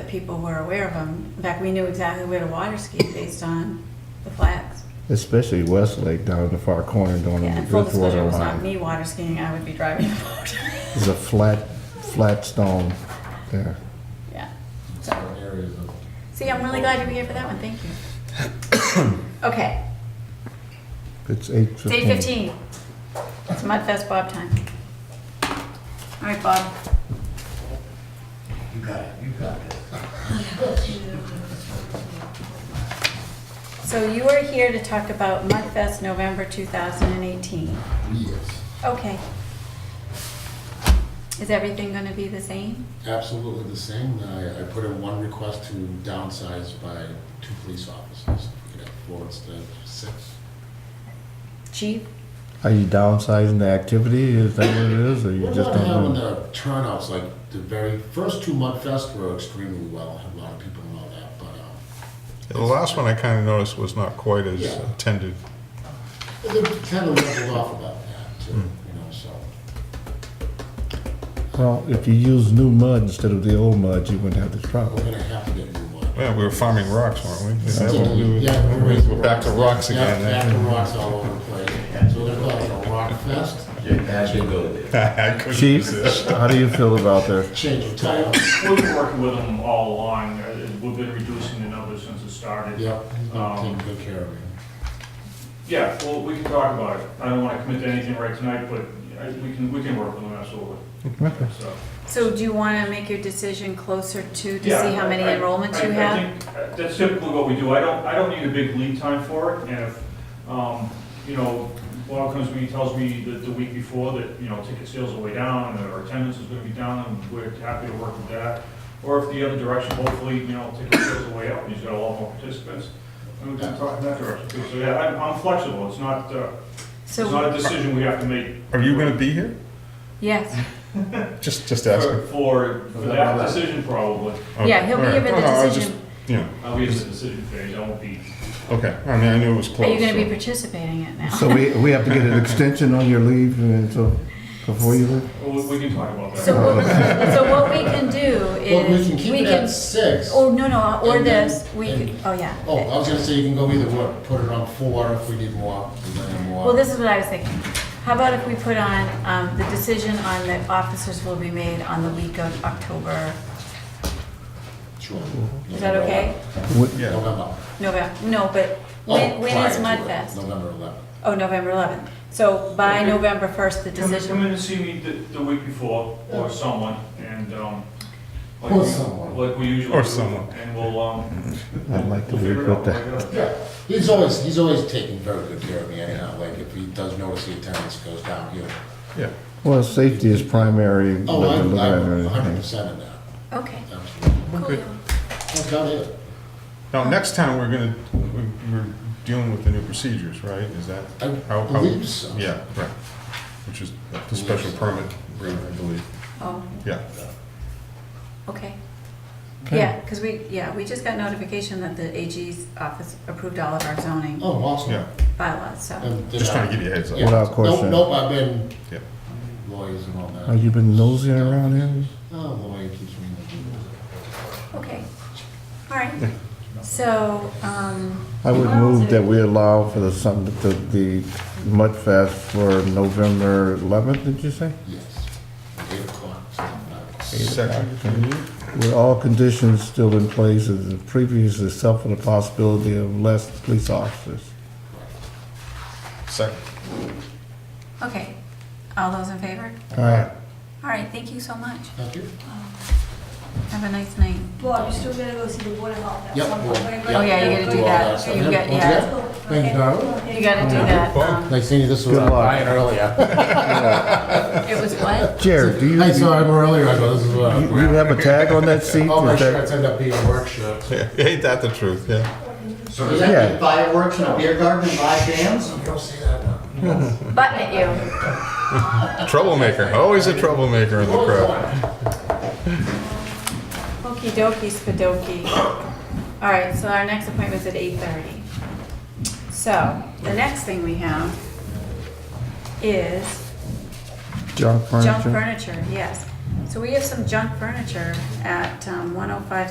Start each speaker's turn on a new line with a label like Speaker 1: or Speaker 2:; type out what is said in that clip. Speaker 1: people were aware of them. In fact, we knew exactly where to water ski based on the flags.
Speaker 2: Especially Westlake down in the far corner down
Speaker 1: Yeah,
Speaker 2: on
Speaker 1: and
Speaker 2: the
Speaker 1: full disclosure,
Speaker 2: Bridgewater
Speaker 1: it was not
Speaker 2: line.
Speaker 1: me water skiing, I would be driving the boat.
Speaker 2: There's a flat, flat stone there.
Speaker 1: Yeah. So,
Speaker 3: several areas of.
Speaker 1: see, I'm really glad you were here for that one, thank you. Okay,
Speaker 2: It's eight
Speaker 1: it's eight fifteen. It's Mudfest Bob time. All right, Bob.
Speaker 3: You got it, you got it.
Speaker 1: So you are here to talk about Mudfest November 2018.
Speaker 3: Yes,
Speaker 1: Okay. Is everything going to be the same?
Speaker 3: absolutely the same. I, I put in one request to downsize by two police officers. We could have four instead of six.
Speaker 1: Chief?
Speaker 2: Are you downsizing the activity? Is that what it is, or you
Speaker 3: We're
Speaker 2: just
Speaker 3: not having
Speaker 2: don't know?
Speaker 3: the turnouts, like the very first two Mudfest were extremely well, a lot of people know that, but, um,
Speaker 4: The last one I kind of noticed was not quite as
Speaker 3: Yeah.
Speaker 4: attended.
Speaker 3: But They kind of leveled off about that, too,
Speaker 4: Hmm.
Speaker 3: you know, so.
Speaker 2: Well, if you use new mud instead of the old mud, you wouldn't have this
Speaker 3: We're
Speaker 2: problem.
Speaker 3: gonna have to get new one.
Speaker 4: Yeah, we were farming rocks, weren't we? Is that what we were-
Speaker 3: Yeah, we're raising
Speaker 4: We're back to rocks
Speaker 3: Yeah,
Speaker 4: again.
Speaker 3: Back to
Speaker 4: eh?
Speaker 3: rocks all over the place. So they're calling it a rock fest,
Speaker 4: eh? I couldn't
Speaker 2: Chief,
Speaker 4: resist.
Speaker 2: how do you feel about that?
Speaker 3: change of title.
Speaker 5: We've been working with them all along, Uh, we've been reducing the numbers since it started.
Speaker 3: Yep, he's gonna take good care of it.
Speaker 5: Yeah, well, we can talk about it, I don't wanna commit to anything right tonight, but I- we can, we can work with them, absolutely,
Speaker 2: Okay.
Speaker 5: so.
Speaker 1: So do you want to make your decision closer to, to see
Speaker 5: yeah,
Speaker 1: how many
Speaker 5: I- I-
Speaker 1: enrollments you
Speaker 5: I- I
Speaker 1: have?
Speaker 5: think, uh, That's typically what we do, I don't, I don't need a big lead time for it, and if, um, you know, Bob comes to me, and tells me that the week before that, you know, ticket sales are way down, and our attendance is gonna be down, and we're happy to work with that. Or if the other direction, hopefully, you know, ticket sales are way up, and he's got a lot more participants, and we can talk in that direction too, so yeah, I'm, I'm flexible, it's not, uh, it's
Speaker 1: So,
Speaker 5: not a decision we have to make.
Speaker 4: Are you gonna be here?
Speaker 1: yes,
Speaker 4: Just, just
Speaker 5: For,
Speaker 4: asking.
Speaker 5: for for that decision probably,
Speaker 1: yeah, he'll be
Speaker 4: Okay,
Speaker 1: given
Speaker 4: all right. No, no, I
Speaker 1: the
Speaker 4: was
Speaker 1: decision.
Speaker 4: just- Yeah,
Speaker 5: I'll be in the decision phase, I won't be
Speaker 4: okay, I mean, I knew it was
Speaker 1: Are
Speaker 4: close.
Speaker 1: you going to be
Speaker 4: so-
Speaker 1: participating in it now?
Speaker 2: So we, we have to get an extension on your leave and so, before you leave?
Speaker 5: We we can talk about
Speaker 1: So
Speaker 5: that.
Speaker 1: what, so what we can do
Speaker 3: Well, we
Speaker 1: is,
Speaker 3: can keep it at six.
Speaker 1: oh, no, no, or
Speaker 3: And then-
Speaker 1: this, we,
Speaker 3: and-
Speaker 1: oh, yeah.
Speaker 3: Oh, I was gonna say you can go either way, put it on four if we need more, and then more.
Speaker 1: Well, this is what I was thinking. How about if we put on, um, the decision on that officers will be made on the week of October,
Speaker 3: Sure.
Speaker 1: is that okay?
Speaker 2: What-
Speaker 4: Yeah,
Speaker 3: November.
Speaker 1: November, no, but
Speaker 3: Oh,
Speaker 1: when, when
Speaker 3: prior
Speaker 1: is
Speaker 3: to it,
Speaker 1: Mudfest?
Speaker 3: November eleventh.
Speaker 1: Oh, November eleventh. So by
Speaker 5: Okay.
Speaker 1: November first, the
Speaker 5: Come in- Come
Speaker 1: decision,
Speaker 5: in and see me the, the week before, or someone, and, um. like
Speaker 3: Or
Speaker 5: we-
Speaker 3: someone.
Speaker 5: Like we usually.
Speaker 4: Or
Speaker 5: do,
Speaker 4: someone.
Speaker 5: And we'll, um.
Speaker 2: I'd like to
Speaker 5: we'll
Speaker 2: leave
Speaker 5: figure
Speaker 2: with
Speaker 5: it out.
Speaker 2: that.
Speaker 5: We'll figure it out.
Speaker 3: Yeah, he's always, he's always taking very good care of me anyhow, like if he does notice the attendance goes down, you.
Speaker 4: yeah.
Speaker 2: Well, safety is primary. with
Speaker 3: Oh,
Speaker 2: the
Speaker 3: I'm,
Speaker 2: letter
Speaker 3: I'm
Speaker 2: and
Speaker 3: hundred
Speaker 2: everything.
Speaker 3: percent in that,
Speaker 1: okay.
Speaker 3: absolutely.
Speaker 4: We're good.
Speaker 3: That's about it.
Speaker 4: Now, next time, we're gonna, we- we're dealing with the new procedures, right? Is that?
Speaker 3: I
Speaker 4: how- how-
Speaker 3: believe so.
Speaker 4: Yeah, right, which is the special permit, I believe,
Speaker 1: Oh,
Speaker 4: yeah.
Speaker 1: okay. Yeah, because we, yeah, we just got notification that the AG's office approved all of our zoning
Speaker 3: Oh, awesome.
Speaker 4: Yeah,
Speaker 1: bylaws, so.
Speaker 3: And did
Speaker 4: just
Speaker 3: I-
Speaker 4: trying to give you a heads up.
Speaker 3: yeah.
Speaker 2: Without
Speaker 3: Nope,
Speaker 2: question.
Speaker 3: Nope, I've been
Speaker 4: Yeah.
Speaker 3: lawyers and all
Speaker 2: Have
Speaker 3: that.
Speaker 2: you been nosing around here?
Speaker 3: Oh, lawyer keeps me. in the-
Speaker 1: Okay, all right. So, um,
Speaker 2: I would move that we allow for the, some, the, the Mudfest for November eleventh, did you say?
Speaker 3: Yes. Eight o'clock, something like that.
Speaker 4: Section from you?
Speaker 2: With all conditions still in place as the previous, except for the possibility of less police officers.
Speaker 4: Second.
Speaker 1: okay, all those in favor?
Speaker 2: All right.
Speaker 1: All right, thank you so much.
Speaker 3: Thank you.
Speaker 1: Have a nice night.
Speaker 6: Bob, you're still gonna go see the board of health? at
Speaker 3: Yep,
Speaker 6: some
Speaker 3: board,
Speaker 6: point, right?
Speaker 3: yep.
Speaker 1: Oh, yeah, you gotta do that.
Speaker 6: Okay.
Speaker 1: You got-
Speaker 6: Okay.
Speaker 1: yeah.
Speaker 3: Thank you, Darla.
Speaker 6: Okay.
Speaker 1: You gotta do that. um,
Speaker 3: Nice seeing you, this was
Speaker 2: Good
Speaker 3: uh,
Speaker 2: luck.
Speaker 3: Brian earlier.
Speaker 1: um, It was what?
Speaker 2: Jared, do you,
Speaker 3: I
Speaker 2: you
Speaker 3: saw him earlier, I uh, go, this is what.
Speaker 2: you have a tag on that seat?
Speaker 3: All Oh, my
Speaker 2: Is that-
Speaker 3: shirts end up being work shirts.
Speaker 4: Yeah, ain't that the truth, yeah.
Speaker 7: So does that mean fireworks and a beer garden and live bands?
Speaker 3: You don't see that now.
Speaker 1: Button at you.
Speaker 4: Troublemaker, always a troublemaker in the crowd.
Speaker 1: Okey dokey spadoky. All right, so our next appointment's at eight thirty. So, the next thing we have is
Speaker 2: Junk
Speaker 1: junk
Speaker 2: furniture?
Speaker 1: furniture, yes. So we have some junk furniture at one oh five